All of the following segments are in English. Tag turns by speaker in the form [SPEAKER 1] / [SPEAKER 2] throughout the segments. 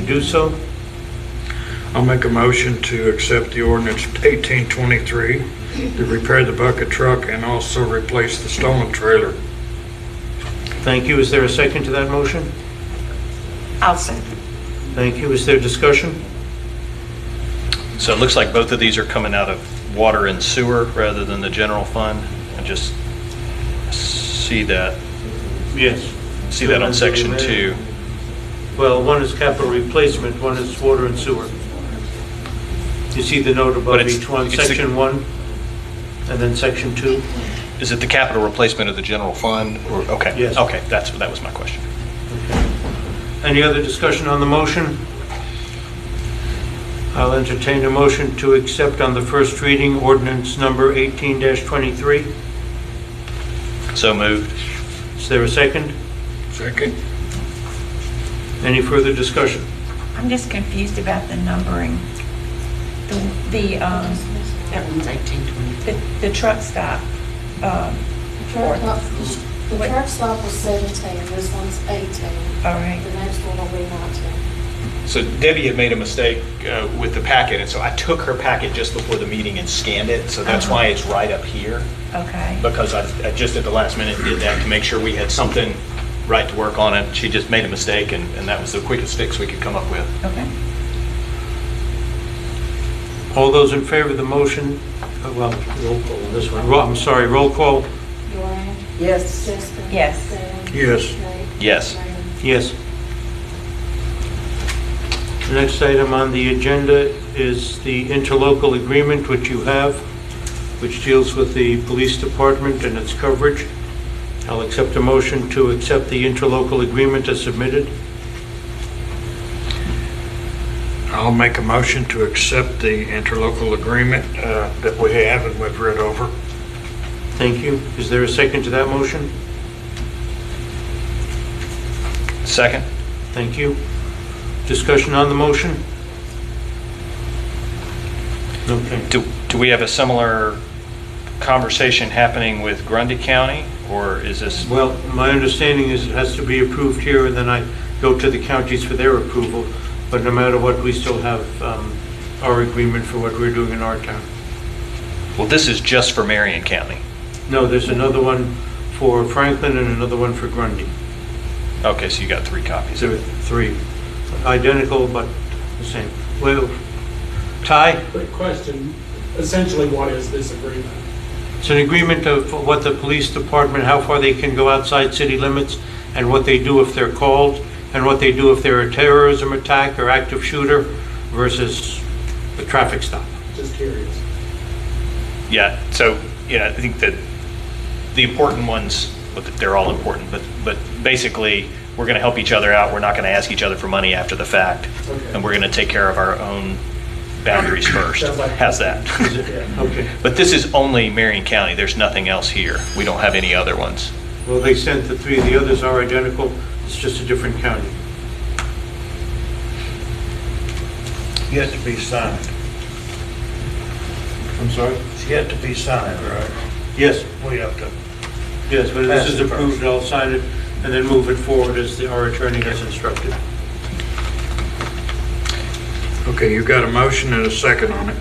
[SPEAKER 1] do so.
[SPEAKER 2] I'll make a motion to accept the ordinance 1823 to repair the bucket truck and also replace the stolen trailer.
[SPEAKER 1] Thank you. Is there a second to that motion?
[SPEAKER 3] I'll second.
[SPEAKER 1] Thank you. Is there discussion?
[SPEAKER 4] So it looks like both of these are coming out of water and sewer rather than the general fund. I just see that,
[SPEAKER 1] Yes.
[SPEAKER 4] see that on section two.
[SPEAKER 1] Well, one is capital replacement, one is water and sewer. You see the note
[SPEAKER 4] But
[SPEAKER 1] above
[SPEAKER 4] it's-
[SPEAKER 1] each one,
[SPEAKER 4] it's the-
[SPEAKER 1] section one, and then section two?
[SPEAKER 4] Is it the capital replacement of the general fund? or- Okay.
[SPEAKER 1] Yes.
[SPEAKER 4] Okay, that's, that was my question.
[SPEAKER 1] Any other discussion on the motion? I'll entertain a motion to accept on the first reading ordinance number 18-23.
[SPEAKER 4] So moved.
[SPEAKER 1] Is there a second?
[SPEAKER 2] Second?
[SPEAKER 1] Any further discussion?
[SPEAKER 3] I'm just confused about the numbering. The, the, um,
[SPEAKER 5] That one's 1820.
[SPEAKER 3] the, the truck stop, um,
[SPEAKER 6] Truck stop- The the truck stop was 17, this one's 18,
[SPEAKER 3] all
[SPEAKER 6] the
[SPEAKER 3] right,
[SPEAKER 6] next one will be 19.
[SPEAKER 7] So Debbie had made a mistake uh, with the packet, and so I took her packet just before the meeting and scanned it, so that's
[SPEAKER 4] Uh-huh.
[SPEAKER 7] why it's right up here,
[SPEAKER 3] okay.
[SPEAKER 7] because I I just at the last minute did that to make sure we had something right to work on it. She just made a mistake, and and that was the quickest fix we could come up with.
[SPEAKER 3] Okay.
[SPEAKER 1] All those in favor of the motion, uh, well, roll call on this one. Ro- I'm sorry, roll call,
[SPEAKER 6] Joanne?
[SPEAKER 5] Yes.
[SPEAKER 6] Jessica?
[SPEAKER 3] Yes.
[SPEAKER 6] Dan?
[SPEAKER 2] Yes.
[SPEAKER 6] Nate?
[SPEAKER 4] Yes.
[SPEAKER 6] Diane?
[SPEAKER 1] yes. The next item on the agenda is the interlocal agreement which you have, which deals with the police department and its coverage. I'll accept a motion to accept the interlocal agreement as submitted.
[SPEAKER 2] I'll make a motion to accept the interlocal agreement uh, that we have and we've read over.
[SPEAKER 1] Thank you. Is there a second to that motion?
[SPEAKER 4] Second?
[SPEAKER 1] Thank you. Discussion on the motion? Okay.
[SPEAKER 4] Do, do we have a similar conversation happening with Grundy County, or is this?
[SPEAKER 1] Well, my understanding is it has to be approved here, and then I go to the counties for their approval, but no matter what, we still have um, our agreement for what we're doing in our town.
[SPEAKER 4] Well, this is just for Marion County.
[SPEAKER 1] No, there's another one for Franklin and another one for Grundy.
[SPEAKER 4] Okay, so you got three copies.
[SPEAKER 1] There are three, identical but the same. Well, Ty,
[SPEAKER 8] Quick question, essentially what is this agreement?
[SPEAKER 1] it's an agreement of what the police department, how far they can go outside city limits, and what they do if they're called, and what they do if they're a terrorism attack or active shooter versus a traffic stop.
[SPEAKER 8] Just curious.
[SPEAKER 4] Yeah, so, yeah, I think that the important ones, but they're all important, but, but basically, we're going to help each other out. We're not going to ask each other for money after the fact.
[SPEAKER 8] Okay.
[SPEAKER 4] And we're going to take care of our own boundaries first.
[SPEAKER 8] Sounds like-
[SPEAKER 4] How's that?
[SPEAKER 8] Yeah.
[SPEAKER 1] Okay.
[SPEAKER 4] But this is only Marion County. There's nothing else here. We don't have any other ones.
[SPEAKER 1] Well, they sent the three, the others are identical, it's just a different county.
[SPEAKER 2] Yet to be signed.
[SPEAKER 1] I'm sorry?
[SPEAKER 2] It's yet to be signed, right?
[SPEAKER 1] Yes,
[SPEAKER 2] We have to.
[SPEAKER 1] yes, but this
[SPEAKER 2] Pass
[SPEAKER 1] is
[SPEAKER 2] it first.
[SPEAKER 1] approved, I'll sign it, and then move it forward as the- our attorney has instructed.
[SPEAKER 2] Okay, you got a motion and a second on it.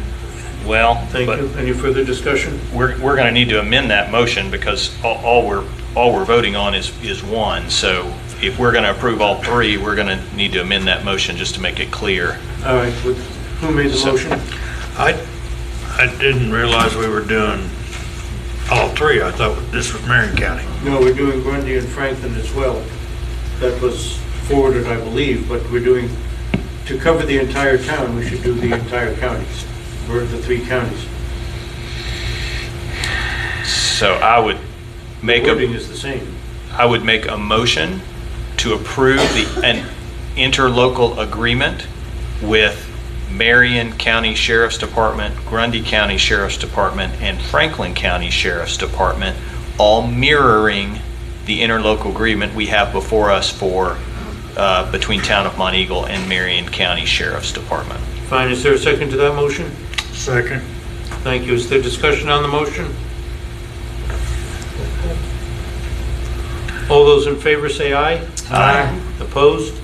[SPEAKER 4] Well,
[SPEAKER 1] Thank
[SPEAKER 4] but
[SPEAKER 1] you. Any further discussion?
[SPEAKER 4] we're, we're going to need to amend that motion because all, all we're, all we're voting on is, is one. So if we're going to approve all three, we're going to need to amend that motion just to make it clear.
[SPEAKER 1] All right, with- who made the motion?
[SPEAKER 2] I, I didn't realize we were doing all three. I thought this was Marion County.
[SPEAKER 1] No, we're doing Grundy and Franklin as well. That was forwarded, I believe, but we're doing, to cover the entire town, we should do the entire counties, or the three counties.
[SPEAKER 4] So I would make
[SPEAKER 1] Wording
[SPEAKER 4] a,
[SPEAKER 1] is the same.
[SPEAKER 4] I would make a motion to approve the, an interlocal agreement with Marion County Sheriff's Department, Grundy County Sheriff's Department, and Franklin County Sheriff's Department, all mirroring the interlocal agreement we have before us for, uh, between Town of Mont Eagle and Marion County Sheriff's Department.
[SPEAKER 1] Fine, is there a second to that motion?
[SPEAKER 2] Second.
[SPEAKER 1] Thank you. Is there discussion on the motion? All those in favor say aye.
[SPEAKER 4] Aye.
[SPEAKER 1] Opposed?